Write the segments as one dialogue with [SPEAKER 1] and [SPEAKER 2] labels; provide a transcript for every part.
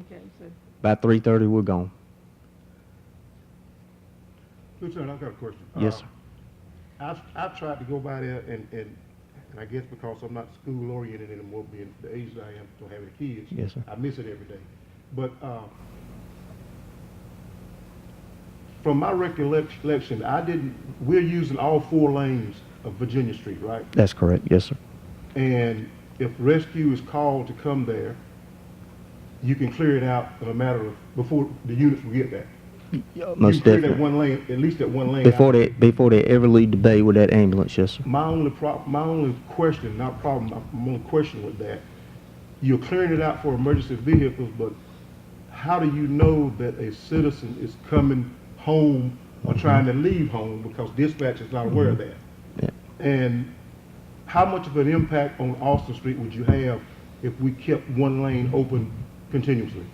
[SPEAKER 1] Okay, so,
[SPEAKER 2] By three thirty, we're gone.
[SPEAKER 3] Lieutenant, I've got a question.
[SPEAKER 2] Yes,
[SPEAKER 3] Uh,
[SPEAKER 2] sir.
[SPEAKER 3] I've, I've tried to go by there and, and, and I guess because I'm not school oriented anymore, being the age that I am, don't have any kids.
[SPEAKER 2] Yes, sir.
[SPEAKER 3] I miss it every day. But, uh, from my recollection, I didn't, we're using all four lanes of Virginia Street, right?
[SPEAKER 2] That's correct. Yes, sir.
[SPEAKER 3] And if rescue is called to come there, you can clear it out in a matter of, before the units will get there.
[SPEAKER 2] Most
[SPEAKER 3] You can clear that
[SPEAKER 2] definitely.
[SPEAKER 3] one lane, at least that one lane. out.
[SPEAKER 2] Before they, before they ever leave the bay with that ambulance, yes, sir.
[SPEAKER 3] My only prob, my only question, not problem, my- my only question with that, you're clearing it out for emergency vehicles, but how do you know that a citizen is coming home or
[SPEAKER 2] Mm-hmm.
[SPEAKER 3] trying to leave home because dispatch is not aware of that?
[SPEAKER 2] Yeah.
[SPEAKER 3] And how much of an impact on Austin Street would you have if we kept one
[SPEAKER 2] Mm-hmm.
[SPEAKER 3] lane open continuously?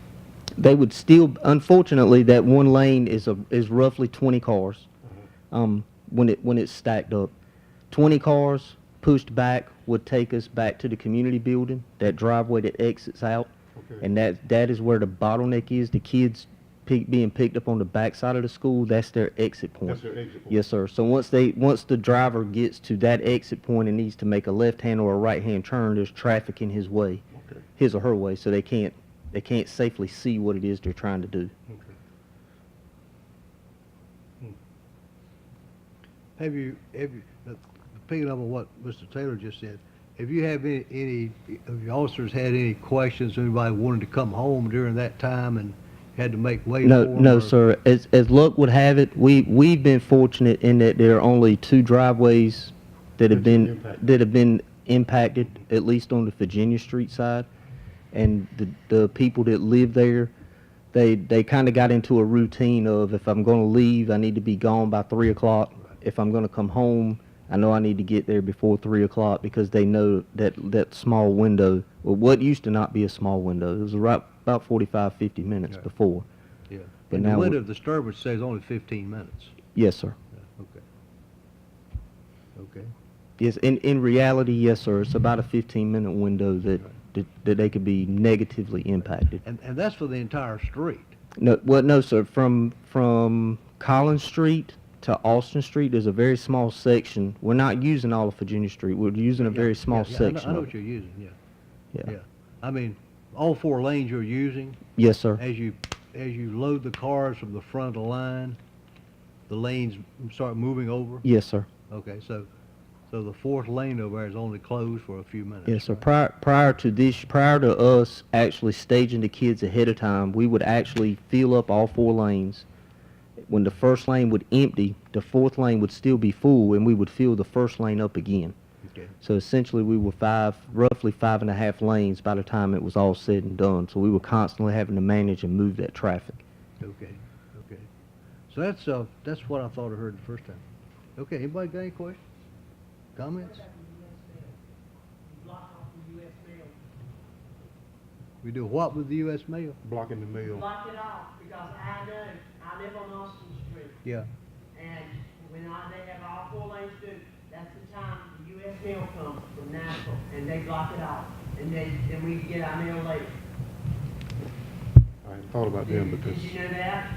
[SPEAKER 2] They would still, unfortunately, that one lane is a, is roughly twenty cars.
[SPEAKER 3] Mm-hmm.
[SPEAKER 2] Um, when it, when it's stacked up. Twenty cars pushed back would take us back to the community building, that driveway that exits out.
[SPEAKER 3] Okay.
[SPEAKER 2] And that, that is where the bottleneck is. The kids pick, being picked up on the backside of the school, that's their exit point.
[SPEAKER 3] That's their exit point.
[SPEAKER 2] Yes, sir. So once they, once the driver gets to that exit point and needs to make a left-hand or a right-hand turn, there's traffic in his way,
[SPEAKER 3] Okay,
[SPEAKER 2] his or her way, so they can't, they can't safely see what it is they're trying to do.
[SPEAKER 3] okay.
[SPEAKER 4] Have you, have you, uh, picking up on what Mr. Taylor just said, have you have any, any of your officers had any questions, anybody wanted to come home during that time and had to make way for
[SPEAKER 2] No,
[SPEAKER 4] 'em,
[SPEAKER 2] no,
[SPEAKER 4] or-
[SPEAKER 2] sir. As, as luck would have it, we, we've been fortunate in that there are only two driveways that have
[SPEAKER 3] That's been
[SPEAKER 2] been,
[SPEAKER 3] impacted.
[SPEAKER 2] that have been impacted, at least on the Virginia Street side. And the, the people that live there, they, they kind of got into a routine of if I'm going to leave, I need to be gone by three o'clock. If I'm going to come home, I know I need to get there before three o'clock because they know that, that small window, well, what used to not be a small window, it was right, about 45, 50 minutes
[SPEAKER 4] Yeah.
[SPEAKER 2] before.
[SPEAKER 4] Yeah.
[SPEAKER 2] But
[SPEAKER 4] And the
[SPEAKER 2] now we-
[SPEAKER 4] window of disturbance says only fifteen minutes.
[SPEAKER 2] Yes, sir.
[SPEAKER 4] Yeah, Okay. Okay.
[SPEAKER 2] Yes, in, in reality, yes, sir. It's about a 15-minute window that, that, that they could be negatively impacted.
[SPEAKER 4] And, and that's for the entire street.
[SPEAKER 2] No, well, no, sir. From, from Collins Street to Austin Street, there's a very small section. We're not using all of Virginia Street. We're using a
[SPEAKER 4] Yeah,
[SPEAKER 2] very small
[SPEAKER 4] yeah, yeah, I know-
[SPEAKER 2] section
[SPEAKER 4] I know
[SPEAKER 2] of
[SPEAKER 4] what
[SPEAKER 2] it.
[SPEAKER 4] you're using, yeah.
[SPEAKER 2] Yeah.
[SPEAKER 4] I mean, all four lanes you're using,
[SPEAKER 2] Yes, sir.
[SPEAKER 4] as you, as you load the cars from the front of the line, the lanes start moving over?
[SPEAKER 2] Yes, sir.
[SPEAKER 4] Okay, so, so the fourth lane over there is only closed for a few minutes?
[SPEAKER 2] Yes, sir.
[SPEAKER 4] right?
[SPEAKER 2] Prior, prior to this, prior to us actually staging the kids ahead of time, we would actually fill up all four lanes. When the first lane would empty, the fourth lane would still be full, and we would fill the first lane up again.
[SPEAKER 4] Okay,
[SPEAKER 2] So essentially, we were five, roughly five and a half lanes by the time it was all said and done. So we were constantly having to manage and move that traffic.
[SPEAKER 4] okay, okay. So that's, uh, that's what I thought I heard the first time. Okay, anybody got any questions? Comments?
[SPEAKER 5] block off the US mail.
[SPEAKER 4] We do what with the US mail?
[SPEAKER 3] Blocking the mail.
[SPEAKER 5] Block it off, because I know, I live on Austin Street,
[SPEAKER 4] Yeah,
[SPEAKER 5] and when I, they have all four lanes through, that's the time the US mail comes from Nashville, and they block it off, and they, then we can get our mail later.
[SPEAKER 3] I hadn't thought about them
[SPEAKER 5] Did
[SPEAKER 3] because
[SPEAKER 5] did you know that?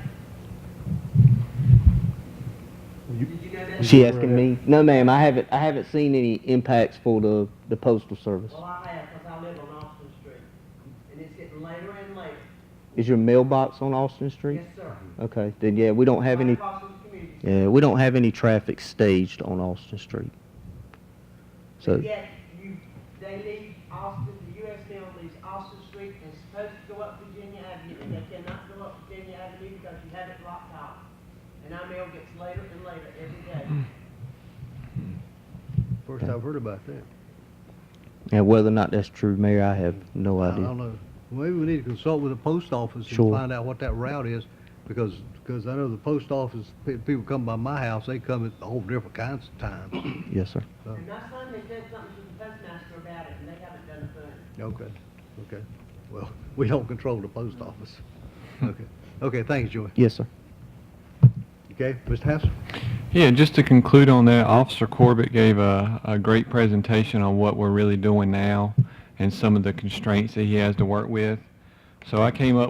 [SPEAKER 3] you,
[SPEAKER 5] Did you know that?
[SPEAKER 2] Is she asking me? No, ma'am. I haven't. I haven't seen any impacts for the the postal service.
[SPEAKER 5] Well, I have, because I live on Austin Street, and it's getting later and later.
[SPEAKER 2] Is your mailbox on Austin Street?
[SPEAKER 5] Yes, sir.
[SPEAKER 2] Okay. Then yeah, we don't have
[SPEAKER 5] Right
[SPEAKER 2] any.
[SPEAKER 5] across from the community.
[SPEAKER 2] Yeah, we don't have any traffic staged on Austin Street. So,
[SPEAKER 5] But Yet, you, they leave Austin, the US mail leaves Austin Street and is supposed to go up Virginia Avenue, and they cannot go up Virginia Avenue because you have it blocked off. And our mail gets later and later every day.
[SPEAKER 4] first I've heard about that.
[SPEAKER 2] and whether or not that's true, Mayor, I have no
[SPEAKER 4] I don't
[SPEAKER 2] idea.
[SPEAKER 4] know. Maybe we need to consult with the post office and
[SPEAKER 2] Sure.
[SPEAKER 4] find out what that route is, because, because I know the post office, pe- people come by my house, they come at all different kinds of times.
[SPEAKER 2] Yes, sir.
[SPEAKER 4] Oh.
[SPEAKER 5] And my son has done something to the postmaster about it, and they haven't done a thing.
[SPEAKER 4] Okay, okay. Well, we don't control the post office. Okay, okay, thanks, Joey.
[SPEAKER 2] Yes, sir.
[SPEAKER 4] Okay, Mr. Hassel?
[SPEAKER 6] Yeah, just to conclude on that, Officer Corbett gave a, a great presentation on what we're really doing now and some of the constraints that he has to work with. So I came up